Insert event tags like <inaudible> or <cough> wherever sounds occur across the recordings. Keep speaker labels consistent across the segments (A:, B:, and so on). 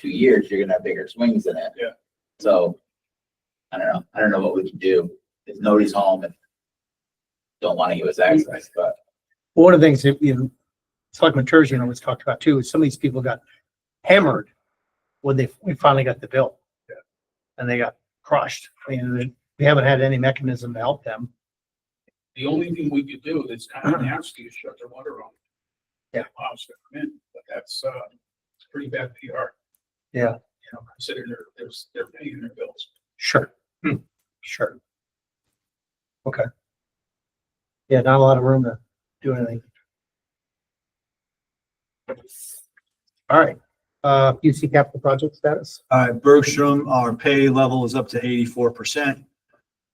A: two years, you're gonna have bigger swings in it.
B: Yeah.
A: So, I don't know, I don't know what we can do, if nobody's home and don't wanna give us access, but
C: One of the things that, you know, Selectman Turgeon always talked about too, is some of these people got hammered when they, we finally got the bill.
B: Yeah.
C: And they got crushed. I mean, they- we haven't had any mechanism to help them.
B: The only thing we could do that's kind
C: <clears throat>
B: of nasty is shut their water on.
C: Yeah.
B: Allows them to come in, but that's, uh, it's pretty bad PR.
C: Yeah.
B: You know, considering they're, they're, they're paying their bills.
C: Sure. Hmm. Sure. Okay. Yeah, not a lot of room to do anything. All right, uh, UC capital project status.
D: Uh, Bergstrom, our pay level is up to eighty-four percent.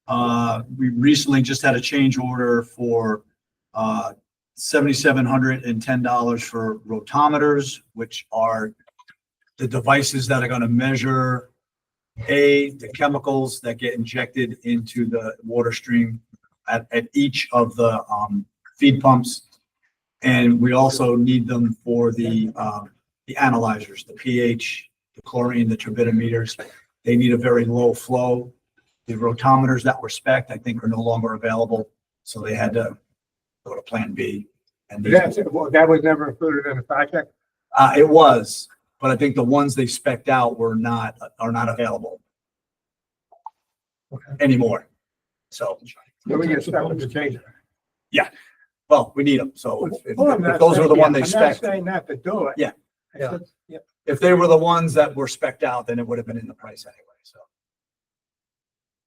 D: Uh, we recently just had a change order for, uh, seventy-seven hundred and ten dollars for rotometers, which are the devices that are gonna measure, A, the chemicals that get injected into the water stream at, at each of the, um, feed pumps. And we also need them for the, um, the analyzers, the pH, the chlorine, the turbidimeters, they need a very low flow. The rotometers that were spec'd, I think, are no longer available, so they had to go to Plan B. And these-
C: that was never included in the project?
D: uh, it was, but I think the ones they spec'd out were not, are not available
C: Okay.
D: anymore. So,
C: Then we get stuck with the change.
D: well, we need them, so if- if if those were the one they spec,
C: not to do it.
D: Yeah.
C: Yeah.
D: if they were the ones that were spec'd out, then it would have been in the price anyway, so.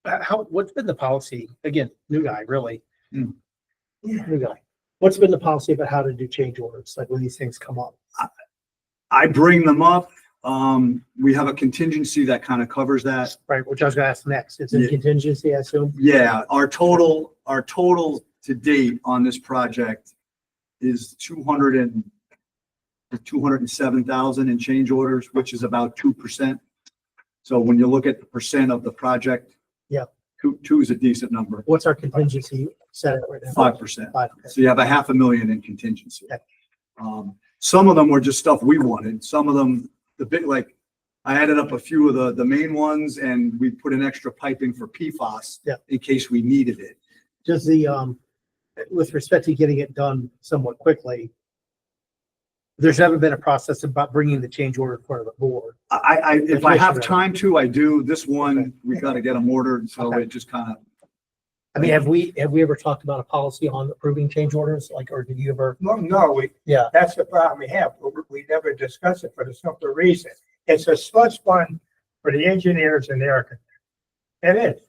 C: Uh, How, what's been the policy? Again, new guy, really.
D: Hmm.
C: New guy. What's been the policy about how to do change orders, like when these things come up?
D: I bring them up, um, we have a contingency that kind of covers that.
C: Right, which I was gonna ask next. It's in
D: Uh, Yeah.
C: contingency, I assume?
D: Yeah, our total, our total to date on this project is two hundred and two hundred and seven thousand in change orders, which is about two percent. So when you look at the percent of the project.
C: Yeah.
D: Two, two is a decent number,
C: What's our contingency set at right now?
D: five percent.
C: Five.
D: So you have a half a million in contingency.
C: Yeah.
D: Um, some of them were just stuff we wanted. Some of them, the big, like, I added up a few of the, the main ones and we put an extra pipe in for PFAS.
C: Yeah.
D: In case we needed it.
C: Does the, um, with respect to getting it done somewhat quickly, there's never been a process about bringing the change order in front of the board.
D: I, I, if I have
C: Definitely.
D: time to, I do. This
C: Okay.
D: one, we gotta get them ordered, so
C: Okay.
D: it just kind of,
C: I mean, have we, have we ever talked about a policy on approving change orders? Like, or did you ever?
E: No, no, we,
C: Yeah.
E: that's the problem we have. We- We never discuss it for the simple reason. It's a slush fund for the engineers and the architects. It is.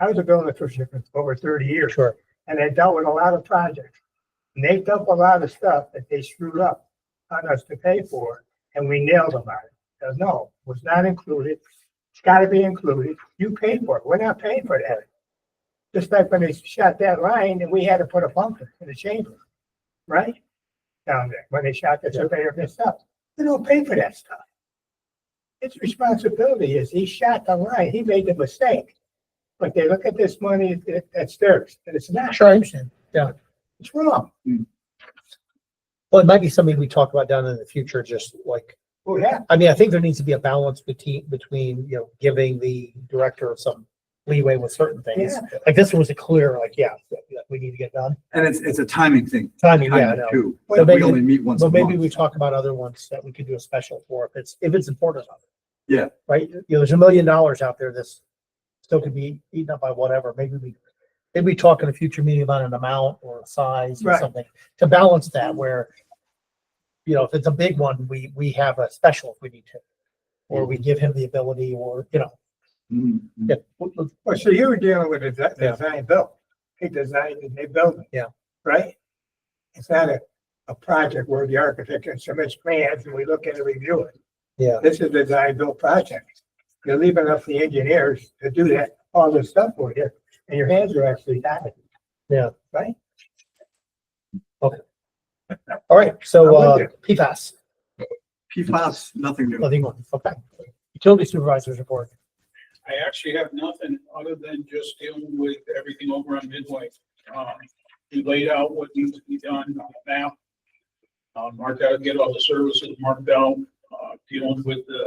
E: I was a building official for over thirty years
C: Sure.
E: and I dealt with a lot of projects. And they dumped a lot of stuff that they screwed up on us to pay for and we nailed them on it. So, No, it was not included. It's gotta be included. You paid for it. We're not paying for that. Just like when they shot that line and we had to put a bunker in the chamber right? Down there, when they shot the surveyor and stuff, they don't pay for that stuff. His responsibility is he shot the line, he made the mistake. But they look at this money that- that's theirs, and it's not,
C: Sure, I understand.
E: it's wrong.
C: Well, it might be something we talk about down in the future, just like,
E: Who had,
C: I mean, I think there needs to be a balance between, between, you know, giving the director some leeway with certain things.
E: yeah,
C: Like this one was a clear, like, yeah, yeah, we need to get done.
D: and it's, it's a timing thing.
C: Timing, yeah, I
D: Timing
C: know.
D: too.
C: But
D: We
C: maybe-
D: only meet once a
C: But maybe we
D: month.
C: talk about other ones that we could do a special for if it's, if it's important. enough.
D: Yeah.
C: Right? You know, there's a million dollars out there that's still could be eaten up by whatever. Maybe we, maybe we talk in a future meeting about an amount or a size or
E: Right.
C: something to balance that where, you know, if it's a big one, we, we have a special if we need to. Or we give him the ability or, you know,
D: Mm, mm.
C: yeah. w- w-
E: well, so you were dealing with a de-
C: Yeah.
E: design build, he designed the new building.
C: Yeah.
E: Right? It's not a, a project where the architect can submit plans and we look at and review it.
C: Yeah.
E: This is a design build project. You're leaving up the engineers to do that, all this stuff for you, and your hands are actually tied.
C: All right. So,
E: I'm
C: uh,
E: with
C: PFAS,
D: PFAS, nothing new.
C: nothing more. Okay. Utility supervisors report.
B: I actually have nothing other than just dealing with everything over on Midway. Um, we laid out what needs to be done on the map. Uh, marked out, get all the services marked out, uh, dealing with the